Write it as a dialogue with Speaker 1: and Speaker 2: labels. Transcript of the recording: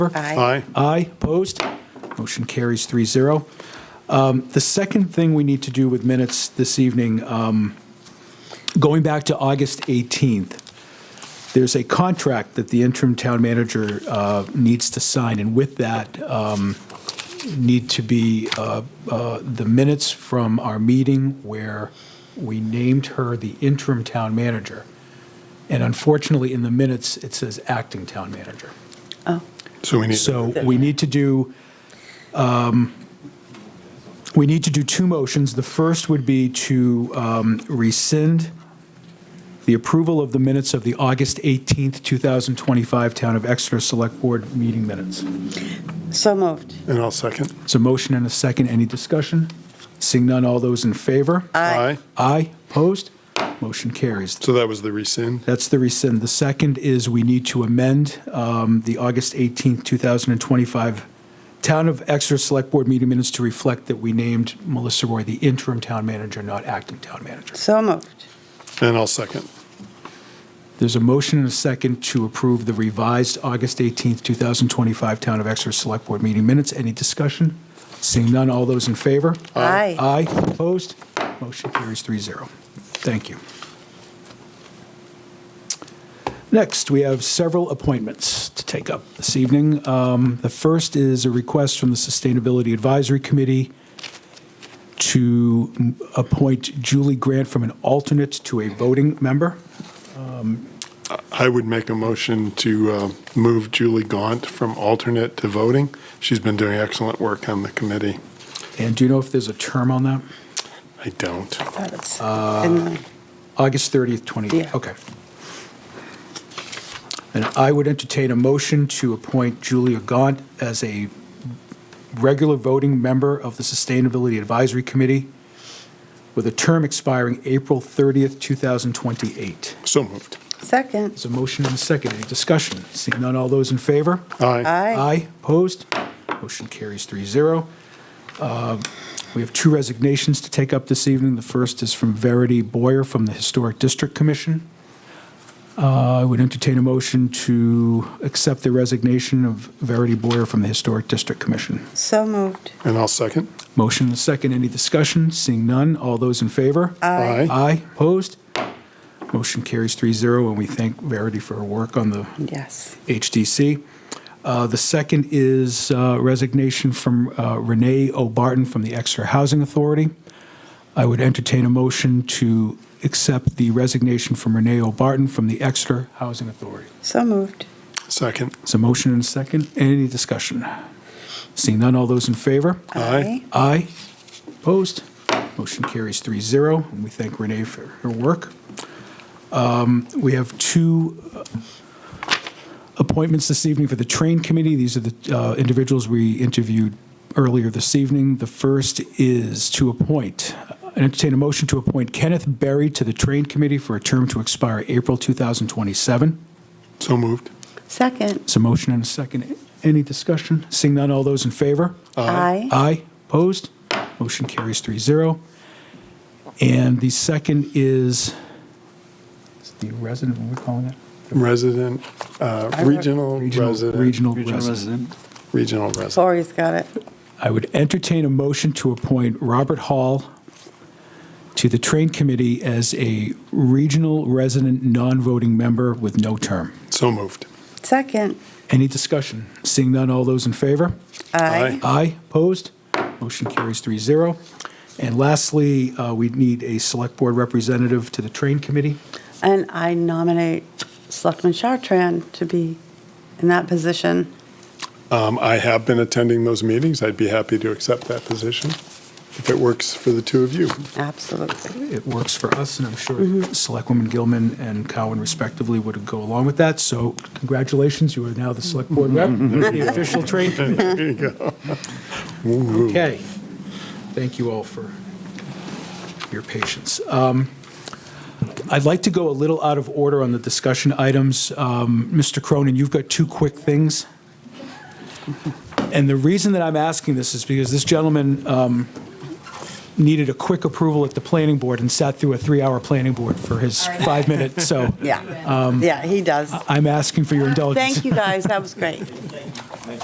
Speaker 1: favor?
Speaker 2: Aye.
Speaker 1: Aye, opposed? Motion carries 3-0. Um, The second thing we need to do with minutes this evening, um, going back to August 18th, there's a contract that the interim town manager uh, needs to sign, and with that um, need to be uh, uh, the minutes from our meeting where we named her the interim town manager. And unfortunately, in the minutes, it says acting town manager.
Speaker 2: So we need.
Speaker 1: So we need to do, um, we need to do two motions. The first would be to um, rescind the approval of the minutes of the August 18th, 2025 Town of Exeter Select Board meeting minutes.
Speaker 3: So moved.
Speaker 2: And I'll second.
Speaker 1: It's a motion and a second. Any discussion? Seeing none, all those in favor?
Speaker 2: Aye.
Speaker 1: Aye. Opposed? Motion carries.
Speaker 2: So that was the rescind.
Speaker 1: That's the rescind. The second is we need to amend um, the August 18th, 2025 Town of Exeter Select Board meeting minutes to reflect that we named Melissa Roy the interim town manager, not acting town manager.
Speaker 3: So moved.
Speaker 2: And I'll second.
Speaker 1: There's a motion and a second to approve the revised August 18th, 2025 Town of Exeter Select Board meeting minutes. Any discussion? Seeing none, all those in favor?
Speaker 3: Aye.
Speaker 1: Aye. Opposed? Motion carries 3-0. Thank you. Next, we have several appointments to take up this evening. Um, The first is a request from the Sustainability Advisory Committee to m- appoint Julie Grant from an alternate to a voting member.
Speaker 2: I would make a motion to uh, move Julie Gaunt from alternate to voting. She's been doing excellent work on the committee.
Speaker 1: And do you know if there's a term on that?
Speaker 2: I don't.
Speaker 3: Thought it's in the-
Speaker 1: August 30th, 20,
Speaker 3: Yeah.
Speaker 1: okay. And I would entertain a motion to appoint Julia Gaunt as a regular voting member of the Sustainability Advisory Committee with a term expiring April 30th, 2028.
Speaker 2: So moved.
Speaker 3: Second.
Speaker 1: There's a motion and a second. Any discussion? Seeing none, all those in favor?
Speaker 2: Aye.
Speaker 3: Aye.
Speaker 1: opposed? Motion carries 3-0. Uh, We have two resignations to take up this evening. The first is from Verity Boyer from the Historic District Commission. Uh, I would entertain a motion to accept the resignation of Verity Boyer from the Historic District Commission.
Speaker 3: So moved.
Speaker 2: And I'll second.
Speaker 1: Motion and a second. Any discussion? Seeing none, all those in favor?
Speaker 2: Aye.
Speaker 1: Aye, opposed? Motion carries 3-0, and we thank Verity for her work on the
Speaker 3: Yes.
Speaker 1: HDC. Uh, The second is uh, resignation from uh, Renee O'Barton from the Exeter Housing Authority. I would entertain a motion to accept the resignation from Renee O'Barton from the Exeter Housing Authority.
Speaker 3: So moved.
Speaker 2: Second.
Speaker 1: It's a motion and a second. Any discussion? Seeing none, all those in favor?
Speaker 2: Aye.
Speaker 1: Aye. Opposed? Motion carries 3-0, and we thank Renee for her work. Um, We have two uh, appointments this evening for the Train Committee. These are the uh, individuals we interviewed earlier this evening. The first is to appoint, and entertain a motion to appoint Kenneth Berry to the Train Committee for a term to expire April 2027.
Speaker 2: So moved.
Speaker 3: Second.
Speaker 1: It's a motion and a second. Any discussion? Seeing none, all those in favor?
Speaker 3: Aye.
Speaker 1: Aye. Uh, Opposed? Motion carries 3-0. And the second is, is the resident, what are we calling it?
Speaker 2: Resident, uh, regional resident,
Speaker 1: Regional
Speaker 4: Regional
Speaker 1: resident.
Speaker 4: resident.
Speaker 2: regional resident.
Speaker 3: Lori's got it.
Speaker 1: I would entertain a motion to appoint Robert Hall to the Train Committee as a regional resident, non-voting member with no term.
Speaker 2: So moved.
Speaker 3: Second.
Speaker 1: Any discussion? Seeing none, all those in favor?
Speaker 2: Aye.
Speaker 1: Aye, opposed? Motion carries 3-0. And lastly, uh, we need a Select Board representative to the Train Committee.
Speaker 3: And I nominate Selectman Chartran to be in that position.
Speaker 2: Um, I have been attending those meetings. I'd be happy to accept that position if it works for the two of you.
Speaker 3: Absolutely.
Speaker 1: It works for us, and I'm sure Selectwoman Gilman and Cowan respectively would go along with that. So congratulations, you are now the Select Board rep, the official Train Committee.
Speaker 2: There you go. Woo-hoo.
Speaker 1: Okay. Thank you all for your patience. Um, I'd like to go a little out of order on the discussion items. Um, Mr. Cronin, you've got two quick things. And the reason that I'm asking this is because this gentleman um, needed a quick approval at the planning board and sat through a three-hour planning board for his five-minute, so
Speaker 3: Yeah. Yeah, he does.
Speaker 1: I'm asking for your indulgence.
Speaker 3: Thank you, guys. That was great.